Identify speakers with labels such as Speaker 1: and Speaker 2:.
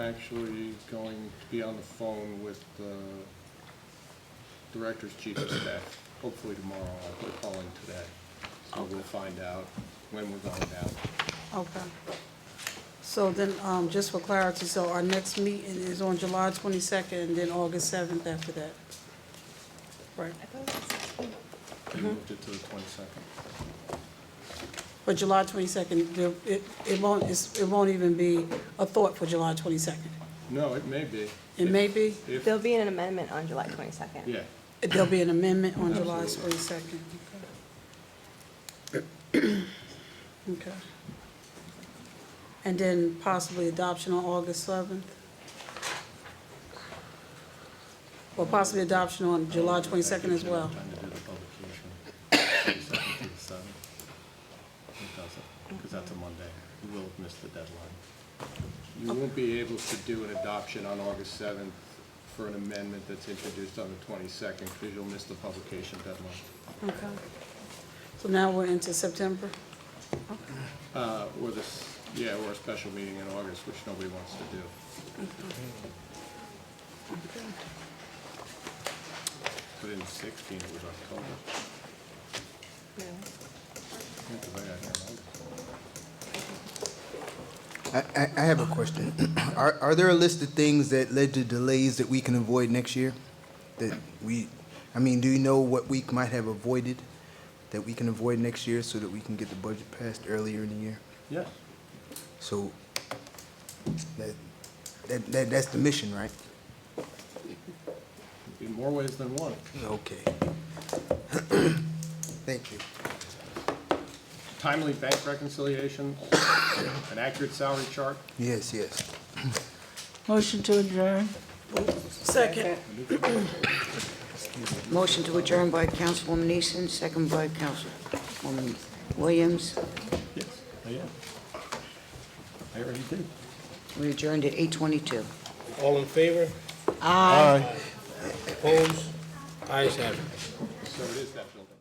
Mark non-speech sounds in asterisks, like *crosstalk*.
Speaker 1: I'm actually going to be on the phone with the director's chief of staff, hopefully tomorrow, I'll put a call in today. So we'll find out when we're going down.
Speaker 2: Okay. So then, um, just for clarity, so our next meeting is on July twenty-second, and then August seventh after that. Right, Mm-hmm.
Speaker 1: We moved it to the twenty-second.
Speaker 2: but July twenty-second, it, it won't, it's, it won't even be a thought for July twenty-second.
Speaker 1: No, it may be.
Speaker 2: It may be,
Speaker 1: If,
Speaker 3: There'll be an amendment on July 22nd.
Speaker 1: yeah,
Speaker 2: there'll be an amendment on July
Speaker 1: Absolutely.
Speaker 2: twenty-second. Okay. And then possibly adoption on August seventh? Or possibly adoption on July twenty-second as well?
Speaker 1: Time to do the publication. 22nd to the 7th. It doesn't, because that's a Monday. You will have missed the deadline. You won't be able to do an adoption on August 7th for an amendment that's introduced on the 22nd, because you'll miss the publication deadline.
Speaker 2: Okay. So now we're into September?
Speaker 1: Uh, Or this, yeah, or a special meeting in August, which nobody wants to do. But in 16, it was October. Yeah, 'cause I got here in August.
Speaker 4: I, I, I have a question. *clears throat* Are, are there a list of things that led to delays that we can avoid next year? That we, I mean, do you know what we might have avoided that we can avoid next year so that we can get the budget passed earlier in the year?
Speaker 1: Yes.
Speaker 4: So, that, that, that, that's the mission, right?
Speaker 1: In more ways than one.
Speaker 4: Okay. *clears throat* Thank you.
Speaker 1: Timely bank reconciliation, an accurate salary chart,
Speaker 4: Yes, yes.
Speaker 5: Motion to adjourn.
Speaker 2: Second.
Speaker 6: Motion to adjourn by Councilwoman Easton, second by Councilwoman Williams.
Speaker 1: Yes, I am. I already did.
Speaker 6: We adjourned at 8:22.
Speaker 7: All in favor? Aye. Opposed? Ayes have it.
Speaker 1: So it is that building.